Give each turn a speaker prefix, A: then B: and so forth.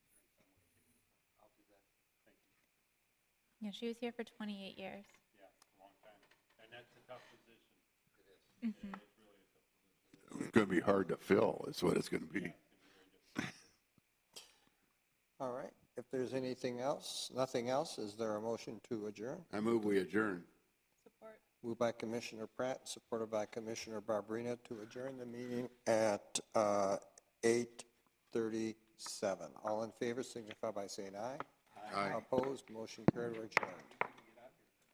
A: Yeah, she was here for 28 years.
B: Yeah, a long time. And that's a tough position.
C: It's going to be hard to fill, is what it's going to be.
D: All right, if there's anything else, nothing else, is there a motion to adjourn?
C: I move we adjourn.
D: Moved by Commissioner Pratt, supported by Commissioner Barberina to adjourn the meeting at uh, 8:37. All in favor signify by saying aye.
C: Aye.
D: Opposed, motion carried, We're adjourned.